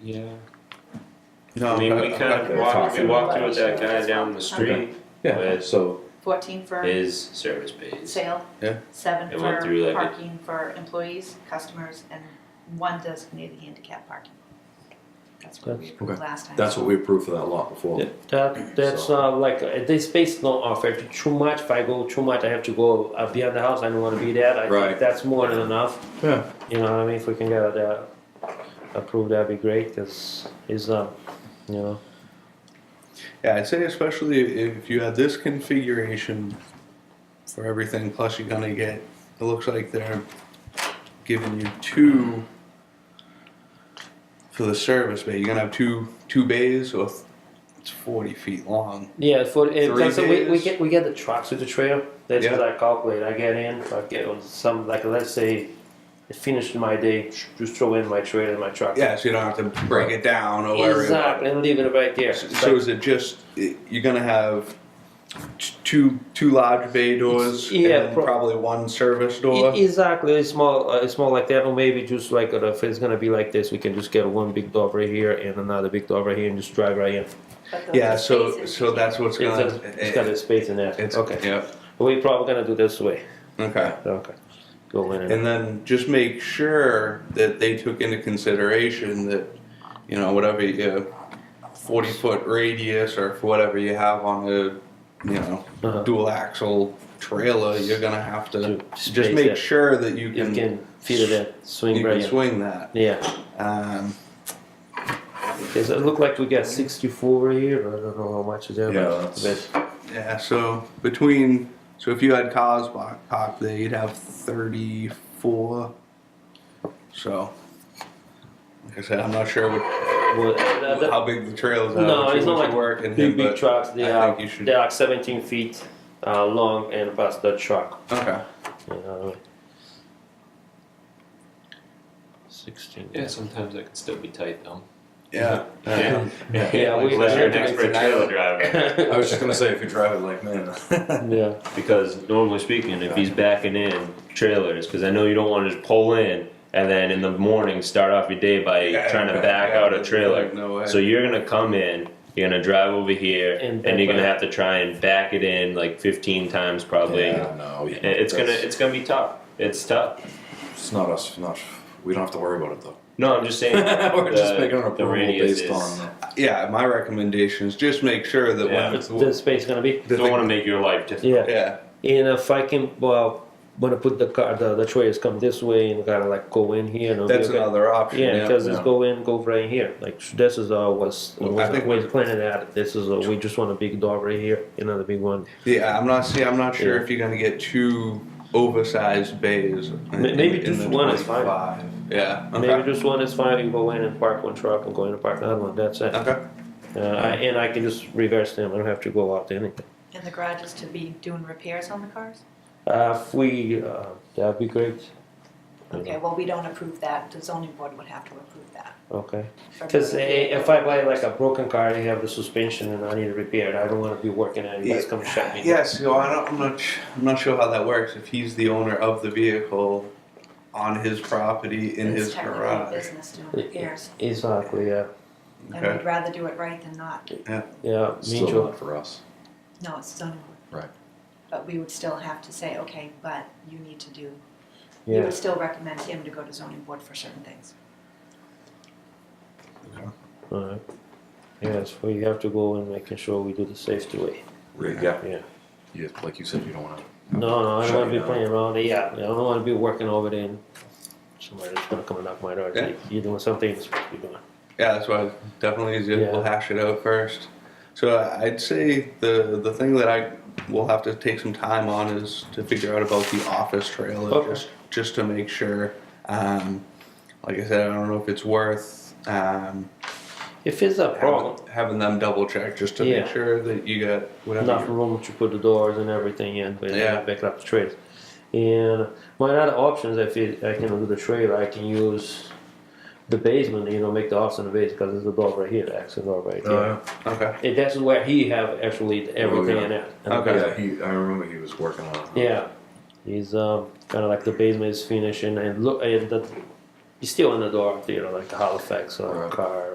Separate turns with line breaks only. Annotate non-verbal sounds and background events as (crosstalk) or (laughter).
Yeah.
No,
I mean, we
I'm
kind
not
of
gonna
walked,
talk
we
about
walked through with that guy down the street,
Yeah, so,
Fourteen for
his service pays.
sale.
Yeah.
Seven
It went
for
through like a-
parking for employees, customers, and one designated handicap parking. That's what we approved
Okay.
last time.
that's what we approved for that lot before.
That that's
So-
not like uh, this space not offered too much. If I go too much, I have to go uh, beyond the house. I don't want to be there. I
Right.
think that's more than enough.
Yeah.
You know what I mean? If we can get that approved, that'd be great. Cause it's uh, you know,
Yeah, I'd say especially if, if you have this configuration for everything, plus you're gonna get, it looks like they're giving you two for the service bay. You're gonna have two, two bays or th- it's forty feet long.
yeah. For it,
Three
that's- we, we
days?
get we get the trucks with the trailer. That's
Yeah.
what I calculate. I get in. I get on some like let's say, I finished my day. Just throw in my trailer and my truck.
Yeah, so you don't have to break it down or worry about
Exactly, and leave it right there.
it. So- So is it just, i- you're gonna have t- two, two large bay doors and
yeah,
then
pro-
probably one service
E-
door?
Exactly, it's small, uh, it's small like that, or maybe just like uh, if it's gonna be like this, we can just get one big dog right here and another big dog right here, and just drive right in.
But those
Yeah, so,
spaces
so that's what's
It's, got
gonna.
a, it's got a space in there.
It's,
okay.
yeah,
We're probably gonna do this way.
okay.
Okay. Go in. And,
And then just make sure that they took into consideration that, you know, whatever your forty foot radius or whatever you have on a, you know,
Uh-huh.
dual axle trailer, you're gonna have to
To
just
space
make
it.
sure that you
you
can
can feed it in, swing
you
right
can
in.
swing that.
Yeah.
Um,
Does it look like we got 64 right here? I don't know how much is there.
Yeah,
but-
that's-
but
yeah, so between so if you had cars parked there, you'd have thirty four. So, like I said, I'm not sure what
well, that- that-
how big the trails are.
No,
which
it's not
would
like
work and
big,
him,
big
but
trucks. They
I
are,
think you should.
they are 17 feet uh, long and past the truck.
Okay.
You know what I mean? 16.
Yeah, sometimes that could still be tight though.
Yeah.
Yeah.
Yeah.
Yeah, we-
Unless you're an
Yeah.
expert trailer driver,
I was just gonna say if you drive it like (laughs) men.
yeah.
because normally speaking, if he's backing in trailers, cause I know you don't wanna just pull in and then in the morning, start off your day by
Yeah,
trying to
yeah,
back
yeah,
out a
there's
trailer.
like no way.
So you're gonna come in, you're gonna drive over here,
And
and you're
back
gonna have
out.
to try and back it in like fifteen times probably.
yeah, no, yeah,
It- It's gonna
that's-
it's gonna be tough. It's tough.
It's not us. Not we don't have to worry about it though.
No, I'm just saying.
(laughs) We're
the-
just making an
the
approval
radius
based
is-
on. The,
Yeah. My recommendation is just make sure that
Yeah.
when
What's the space gonna be?
the
Don't
thing-
want to make your life difficult.
Yeah.
Yeah.
And if I can, well, when I put the car, the, the trailers come this way and kind of like go in here. And it'll be
That's
okay.
another option.
Yeah,
Yeah.
because it's
yeah.
go in, go right here. Like sh- this is uh, what's
Well, I
was-
think
we're planning at. This is uh, we just want a big dog right here, another big one.
Yeah, I'm not. See, I'm not sure if you're gonna get two oversized bays. in-
maybe
in
just
the
one is fine.
25. Yeah. Okay.
Maybe just one is fine. You go in and park one truck and go in and park another one. That's it.
okay.
Uh, I, and I can just reverse them. I don't have to go out to anything.
And the garage is to be doing repairs on the cars?
Uh, if we, uh, that'd be great.
Okay, well, we don't approve that, the zoning board would have to approve that.
Okay.
for
Because
motor
if I buy like a broken car, I have the suspension and I need it repaired. I don't want to be working and you guys come and shut me. down.
Yeah. So I don't. I'm not. sh- I'm not sure how that works. If he's the owner of the vehicle, on his property in
It's
his
technically
garage.
Business doing repairs,
Exactly. Yeah.
and
Okay.
we'd rather do it right than not.
Yeah. Me
still
too.
not for us.
No, it's zoning board.
Right.
But we would still have to say, okay, but you need to do, you
Yeah.
would still recommend him to go to zoning board for certain things.
All right. Yes, we have to go and making sure we do the safety way.
Right, yeah.
Yeah.
You, like you said, you don't want to.
No, no, I don't
Shut
want to
you
be
down.
playing around. Yeah, I don't want to be working over there. And somebody that's gonna come and knock my door. and say, You're doing something you're supposed to be doing.
Yeah, that's why definitely easier.
Yeah.
We'll hash it out first. So I'd say the the thing that I will have to take some time on is to figure out about the office trailer,
Okay.
just just to make sure. Um, like I said, I don't know if it's worth um,
If it's a problem,
having, having them double check just to
Yeah.
make sure that you got whatever.
enough room to put the doors and everything in, but
Yeah.
yeah. back up the trailers. And my other options, if it, I can do the trailer, I can use the basement. You know, make the office in the basement because there's a door right here, the access door right there.
you- okay.
And that's where he have actually everything
Uh-huh. yeah.
in it.
Okay.
Yeah, he. I remember he was working on. it.
Yeah, he's um, kind of like the basement is finishing and look and the you're still in the door, you know, like the Halifax or
Right.
car